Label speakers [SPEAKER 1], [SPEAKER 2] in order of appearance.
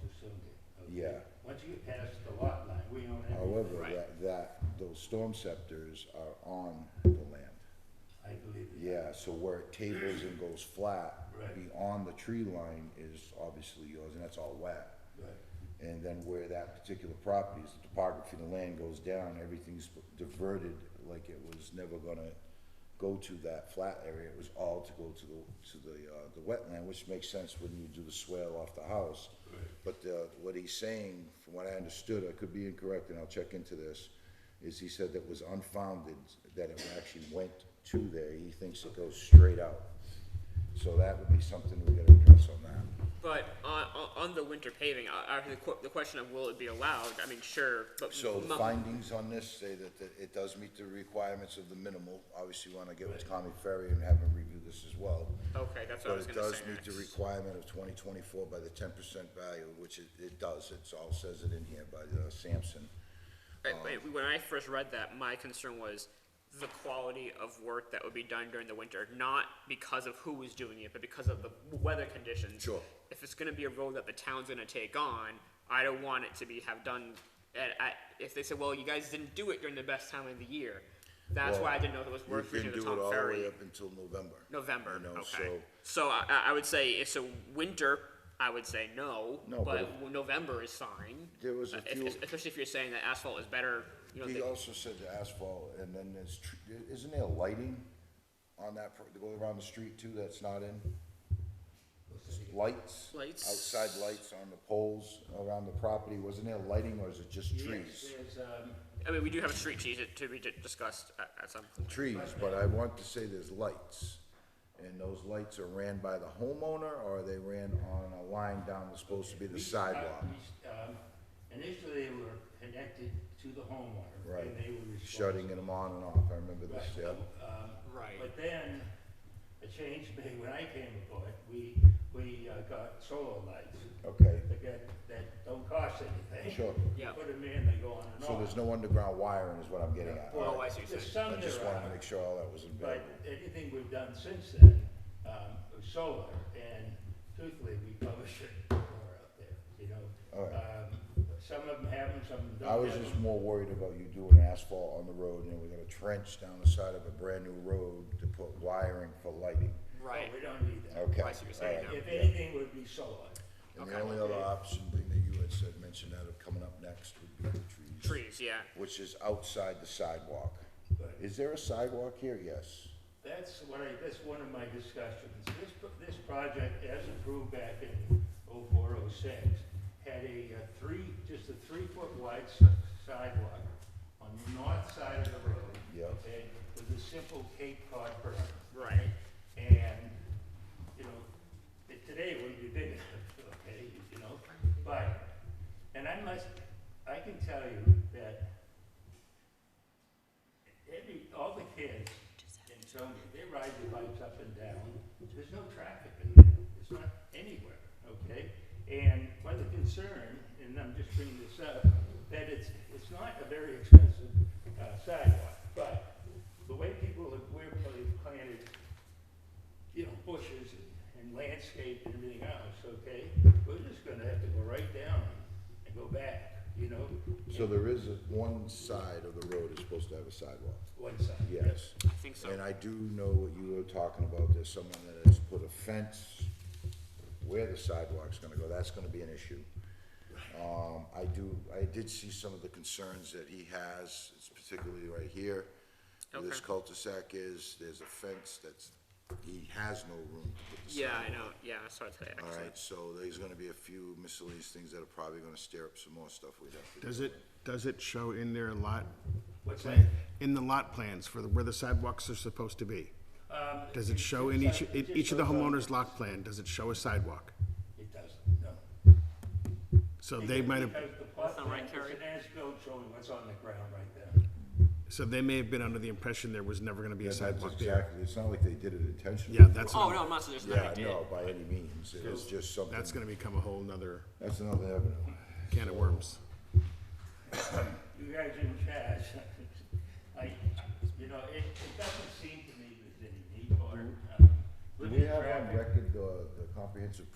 [SPEAKER 1] consumed it. okay?
[SPEAKER 2] Yeah.
[SPEAKER 1] Once you get past the lot line, we own everything.
[SPEAKER 2] However,
[SPEAKER 3] Right.
[SPEAKER 2] that, that, those storm scepters are on the land.
[SPEAKER 1] I believe it.
[SPEAKER 2] Yeah, so where it tables and goes flat,
[SPEAKER 1] Right.
[SPEAKER 2] beyond the tree line is obviously yours, and that's all wet.
[SPEAKER 1] Right.
[SPEAKER 2] And then where that particular property is, the topography of the land goes down, everything's diverted, like it was never gonna go to that flat area, it was all to go to the, to the, uh, the wetland, which makes sense when you do the swale off the house. But, uh, what he's saying, from what I understood, I could be incorrect, and I'll check into this, is he said that was unfounded, that it actually went to there, he thinks it goes straight out. So that would be something we gotta address on that.
[SPEAKER 3] But on, on, on the winter paving, uh, after the, qu- the question of will it be allowed, I mean, sure, but.
[SPEAKER 2] So
[SPEAKER 3] mu-
[SPEAKER 2] findings on this say that that it does meet the requirements of the minimal. Obviously, you want to get with Tommy Ferry and have him review this as well.
[SPEAKER 3] Okay, that's what
[SPEAKER 2] But
[SPEAKER 3] I was
[SPEAKER 2] it
[SPEAKER 3] gonna
[SPEAKER 2] does
[SPEAKER 3] say
[SPEAKER 2] meet the
[SPEAKER 3] next.
[SPEAKER 2] requirement of 2024 by the 10% value, which it, it does. It's all says it in here by the Sampson. um,
[SPEAKER 3] Right, wait, When I first read that, my concern was the quality of work that would be done during the winter, not because of who was doing it, but because of the weather conditions.
[SPEAKER 2] Sure.
[SPEAKER 3] If it's gonna be a road that the town's gonna take on, I don't want it to be, have done, at, at, if they said, well, you guys didn't do it during the best time of the year. That's
[SPEAKER 2] Well,
[SPEAKER 3] why I didn't know if it was worth
[SPEAKER 2] You
[SPEAKER 3] reaching
[SPEAKER 2] can
[SPEAKER 3] the
[SPEAKER 2] do it
[SPEAKER 3] Tom
[SPEAKER 2] all the way
[SPEAKER 3] Ferry.
[SPEAKER 2] up until November.
[SPEAKER 3] November,
[SPEAKER 2] You know,
[SPEAKER 3] okay.
[SPEAKER 2] so-
[SPEAKER 3] So I, I- I would say, if so winter, I would say no,
[SPEAKER 2] No, but
[SPEAKER 3] but November is fine.
[SPEAKER 2] There was a
[SPEAKER 3] Uh, if-
[SPEAKER 2] few-
[SPEAKER 3] Especially if you're saying that asphalt is better, you know,
[SPEAKER 2] He
[SPEAKER 3] the-
[SPEAKER 2] also said the asphalt, and then there's, tr- isn't there lighting on that, pro- to go around the street too, that's not in? Lights?
[SPEAKER 3] Lights.
[SPEAKER 2] Outside lights on the poles around the property, wasn't there lighting or is it just
[SPEAKER 1] Yes,
[SPEAKER 2] trees?
[SPEAKER 1] there's, um,
[SPEAKER 3] I mean, we do have a street cheese to be di- discussed at, at some point.
[SPEAKER 2] Trees, but I want to say there's lights. And those lights are ran by the homeowner or they ran on a line down that's supposed to be the
[SPEAKER 1] we-
[SPEAKER 2] sidewalk?
[SPEAKER 1] uh, we, um, Initially, they were connected to the homeowner.
[SPEAKER 2] Right.
[SPEAKER 1] And they were responsible.
[SPEAKER 2] Shutting them on and off, I remember this,
[SPEAKER 1] Right,
[SPEAKER 2] yeah.
[SPEAKER 1] um,
[SPEAKER 3] Right.
[SPEAKER 1] But then, a change made when I came aboard, we, we uh, got solar lights
[SPEAKER 2] Okay,
[SPEAKER 1] that, get- that don't cost anything.
[SPEAKER 2] Sure.
[SPEAKER 1] You
[SPEAKER 3] Yeah.
[SPEAKER 1] Put them in, they go on and
[SPEAKER 2] so
[SPEAKER 1] on.
[SPEAKER 2] there's no underground wiring is what I'm getting at.
[SPEAKER 3] Well, I see what you're
[SPEAKER 1] There's
[SPEAKER 3] saying.
[SPEAKER 1] some
[SPEAKER 2] I just
[SPEAKER 1] there
[SPEAKER 2] wanted to
[SPEAKER 1] are,
[SPEAKER 2] make sure all that was
[SPEAKER 1] But
[SPEAKER 2] available.
[SPEAKER 1] anything we've done since then, um, was solar, and truthfully, we probably shouldn't put more out there, you know?
[SPEAKER 2] All right.
[SPEAKER 1] Um, Some of them have them, some don't
[SPEAKER 2] I
[SPEAKER 1] have
[SPEAKER 2] was just
[SPEAKER 1] them.
[SPEAKER 2] more worried about you doing asphalt on the road, and we got a trench down the side of a brand-new road to put wiring for lighting.
[SPEAKER 3] Right.
[SPEAKER 1] We don't need that.
[SPEAKER 2] Okay.
[SPEAKER 3] Oh, I see what you're saying
[SPEAKER 2] all right,
[SPEAKER 1] If
[SPEAKER 2] yeah.
[SPEAKER 1] anything, would be solar.
[SPEAKER 2] And the
[SPEAKER 3] Okay.
[SPEAKER 2] only other option thing that you had said, mentioned that of coming up next would be the trees.
[SPEAKER 3] Trees, yeah.
[SPEAKER 2] Which is outside the sidewalk.
[SPEAKER 1] Right.
[SPEAKER 2] Is there a sidewalk here? Yes.
[SPEAKER 1] That's what I, that's one of my discussions. This, this project, as approved back in oh four, oh six, had a uh, three, just a three-foot wide s- sidewalk on the north side of the road.
[SPEAKER 2] Yep.
[SPEAKER 1] Okay, with a simple Cape Cod berm.
[SPEAKER 3] Right.
[SPEAKER 1] And, you know, it- today it wouldn't be big enough, okay, you know, but, and I must, I can tell you that every, all the kids in Sonia, they ride their bikes up and down. There's no traffic in there. It's not anywhere, okay? And one of the concern, and I'm just bringing this up, that it's, it's not a very expensive uh, sidewalk, but the way people have, we're pla- planted, you know, bushes and landscape and everything else, okay? We're just gonna have to go right down and go back, you know,
[SPEAKER 2] So there is, a- one side of the road is supposed to have a sidewalk.
[SPEAKER 1] one side.
[SPEAKER 2] Yes.
[SPEAKER 3] I think so.
[SPEAKER 2] And I do know what you were talking about, there's someone that has put a fence where the sidewalk's gonna go, that's gonna be an issue. Um, I do, I did see some of the concerns that he has, it's particularly right here. Where this
[SPEAKER 3] Okay.
[SPEAKER 2] cul-de-sac is, there's a fence that's, he has no room to put the
[SPEAKER 3] Yeah,
[SPEAKER 2] sidewalk.
[SPEAKER 3] I know. Yeah, I saw it today. Actually.
[SPEAKER 2] All right, so there's gonna be a few miscellaneous things that are probably gonna stir up some more stuff we'd have to do.
[SPEAKER 4] Does it, does it show in their lot?
[SPEAKER 1] What's
[SPEAKER 4] plan- In the lot plans for the- where the sidewalks are supposed to be?
[SPEAKER 1] Um,
[SPEAKER 4] Does it show in each, in each of the homeowner's lot plan, does it show a sidewalk?
[SPEAKER 1] It doesn't, no.
[SPEAKER 4] So they might have,
[SPEAKER 1] Because the plot
[SPEAKER 3] That's not right,
[SPEAKER 1] plan is
[SPEAKER 3] Carrie.
[SPEAKER 1] an as-built showing what's on the ground right there.
[SPEAKER 4] so they may have been under the impression there was never gonna be a
[SPEAKER 2] That's
[SPEAKER 4] sidewalk there.
[SPEAKER 2] Exactly, it's not like they did it intentionally.
[SPEAKER 4] Yeah, that's,
[SPEAKER 3] Oh no, I'm not suggesting that
[SPEAKER 2] Yeah,
[SPEAKER 3] I did.
[SPEAKER 2] no, by any means, it is just something.
[SPEAKER 4] that's gonna become a whole nother
[SPEAKER 2] That's another avenue.
[SPEAKER 4] can of worms.
[SPEAKER 1] You guys in charge. I, you know, it, it doesn't seem to me there's any need for, it. um,
[SPEAKER 2] Do
[SPEAKER 1] living
[SPEAKER 2] we have on
[SPEAKER 1] traffic.
[SPEAKER 2] record the, the comprehensive